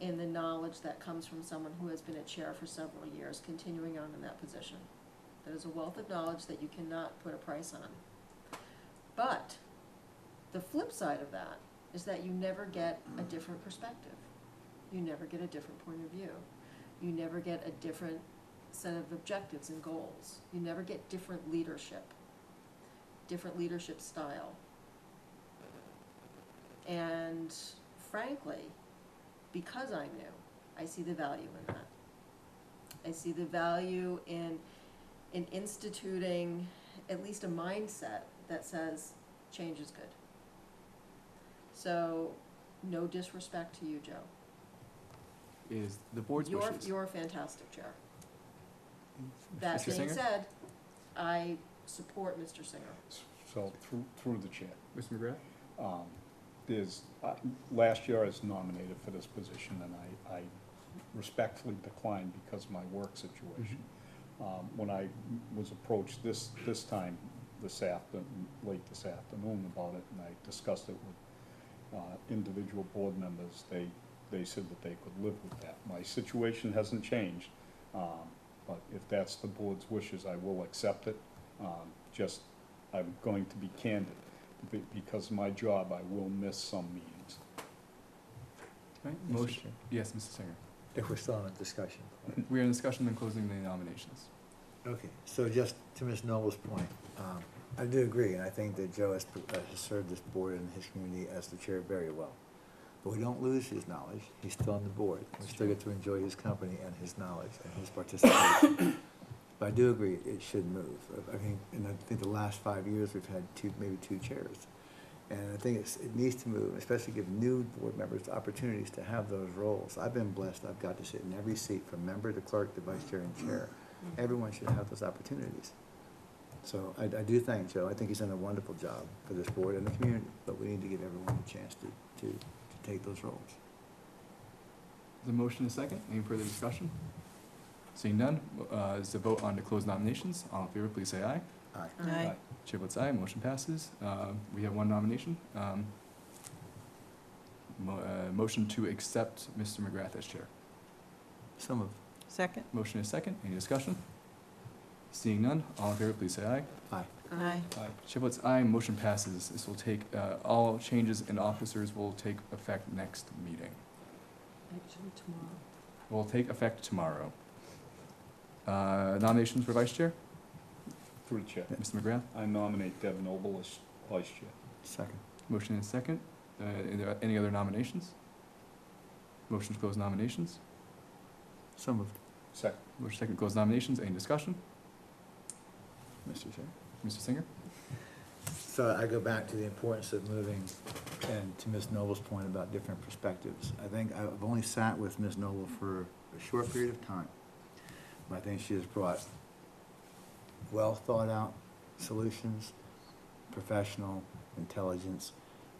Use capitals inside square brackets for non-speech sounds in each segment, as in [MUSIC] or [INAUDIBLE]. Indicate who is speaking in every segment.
Speaker 1: and the knowledge that comes from someone who has been a chair for several years, continuing on in that position. That is a wealth of knowledge that you cannot put a price on. But the flip side of that is that you never get a different perspective. You never get a different point of view. You never get a different set of objectives and goals. You never get different leadership, different leadership style. And frankly, because I'm new, I see the value in that. I see the value in, in instituting at least a mindset that says, change is good. So, no disrespect to you, Joe.
Speaker 2: is the board's
Speaker 1: You're,
Speaker 2: wishes.
Speaker 1: you're a fantastic chair.
Speaker 2: Mr.
Speaker 1: That being
Speaker 2: Singer?
Speaker 1: said, I support Mr. Singer.
Speaker 3: So through, through the chair,
Speaker 2: Mr. McGrath?
Speaker 3: um, there's, I- last year I was nominated for this position and I, I respectfully declined because of my work
Speaker 2: Mm-hmm.
Speaker 3: situation. Um, When I was approached this, this time, this after, late this afternoon about it, and I discussed it with uh, individual board members, they, they said that they could live with that. My situation hasn't changed, um, but if that's the board's wishes, I will accept it. Um, Just, I'm going to be candid, be- because of my job, I will miss some meetings.
Speaker 2: Right,
Speaker 4: Mr.
Speaker 2: motion,
Speaker 4: Chair.
Speaker 2: yes, Mr. Singer.
Speaker 4: If we're still on a discussion.
Speaker 2: We are in discussion then closing the nominations.
Speaker 4: Okay, so just to Ms. Noble's point, um, I do agree, and I think that Joe has, pr- uh, has served this board and his community as the chair very well. But we don't lose his knowledge, he's still on the board, we still get to enjoy his company and his knowledge and his participation. But I do agree, it should move, I- I mean, and I think the last five years, we've had two, maybe two chairs. And I think it's, it needs to move, especially give new board members the opportunities to have those roles. I've been blessed, I've got to sit in every seat, from member to clerk to vice chair and chair. Everyone should have those opportunities. So I, I do thank Joe, I think he's done a wonderful job for this board and the community, but we need to give everyone a chance to, to, to take those roles.
Speaker 2: The motion is second, any further discussion? Seeing none, uh, is the vote on to close nominations, all in favor, please say aye.
Speaker 4: Aye.
Speaker 3: Aye.
Speaker 2: Chair votes aye, motion passes. Uh, we have one nomination. Um, mo- uh, motion to accept Mr. McGrath as chair.
Speaker 4: Some of,
Speaker 5: Second?
Speaker 2: Motion is second, any discussion? Seeing none, all in favor, please say aye.
Speaker 4: aye.
Speaker 5: Aye.
Speaker 2: Chair votes aye, motion passes. This will take, uh, all changes in officers will take effect next meeting.
Speaker 1: Actually, tomorrow.
Speaker 2: Will take effect tomorrow. Uh, nominations for vice chair?
Speaker 3: Through the chair.
Speaker 2: Mr. McGrath,
Speaker 3: I nominate Deb Noble as vice chair.
Speaker 4: Second,
Speaker 2: motion and second. Uh, are there any other nominations? Motion to close nominations.
Speaker 4: some of,
Speaker 3: Second.
Speaker 2: Motion second to close nominations. Any discussion?
Speaker 4: Mr. Chair.
Speaker 2: Mr. Singer?
Speaker 4: So I go back to the importance of moving, and to Ms. Noble's point about different perspectives. I think I've only sat with Ms. Noble for a short period of time, but I think she has brought well-thought-out solutions, professional intelligence,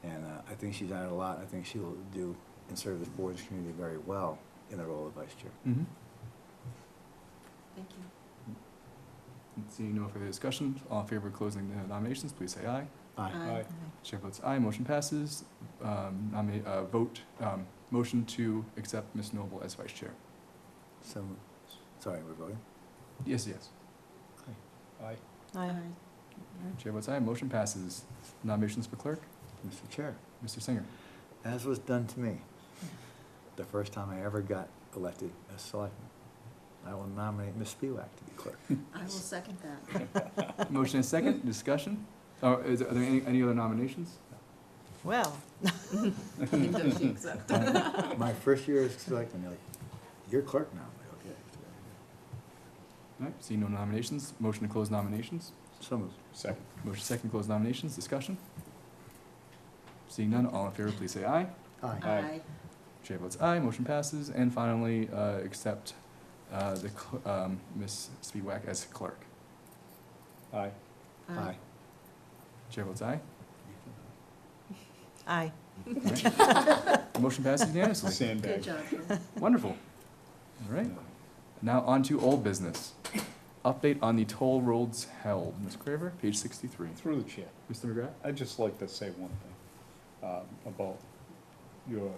Speaker 4: and uh, I think she's added a lot. I think she will do and serve this board's community very well in the role of vice chair.
Speaker 2: Mm-hmm.
Speaker 1: Thank you.
Speaker 2: Seeing no further discussion, all in favor of closing the nominations, please say aye.
Speaker 4: Aye.
Speaker 1: Aye.
Speaker 2: Chair votes aye, motion passes. Um, nominate, uh, vote, um, motion to accept Ms. Noble as vice chair.
Speaker 4: So, sorry, we're voting?
Speaker 2: Yes, yes.
Speaker 3: Aye.
Speaker 5: Aye.
Speaker 2: Chair votes aye, motion passes. Nominations for clerk,
Speaker 4: Mr. Chair.
Speaker 2: Mr. Singer.
Speaker 4: as was done to me the first time I ever got elected as selectman. I will nominate Ms. Spiewak to be clerk.
Speaker 1: I will second that.
Speaker 2: Motion and second, discussion? Or is, are there any, any other nominations?
Speaker 1: [LAUGHS]
Speaker 5: Well.
Speaker 4: My first year as selectman, they're like, you're clerk now. I'm like, okay.
Speaker 2: All right, seeing no nominations, motion to close nominations.
Speaker 4: So moved.
Speaker 3: Second.
Speaker 2: Motion second, to close nominations, discussion? Seeing none, all in favor, please say aye.
Speaker 4: Aye.
Speaker 1: Aye.
Speaker 2: Chair votes aye, motion passes. And finally, uh, accept, uh, the, cl- um, Ms. Spiewak as clerk.
Speaker 3: Aye.
Speaker 4: Aye.
Speaker 2: Chair votes aye.
Speaker 5: Aye.
Speaker 2: All right. Motion passes unanimously.
Speaker 1: Good
Speaker 3: Sandbag.
Speaker 1: job, Joe.
Speaker 2: Wonderful. All right, now on to old business. Update on the toll roads held. Ms. Craver, page sixty-three.
Speaker 3: Through the chair.
Speaker 2: Mr. McGrath?
Speaker 3: I'd just like to say one thing, um, about your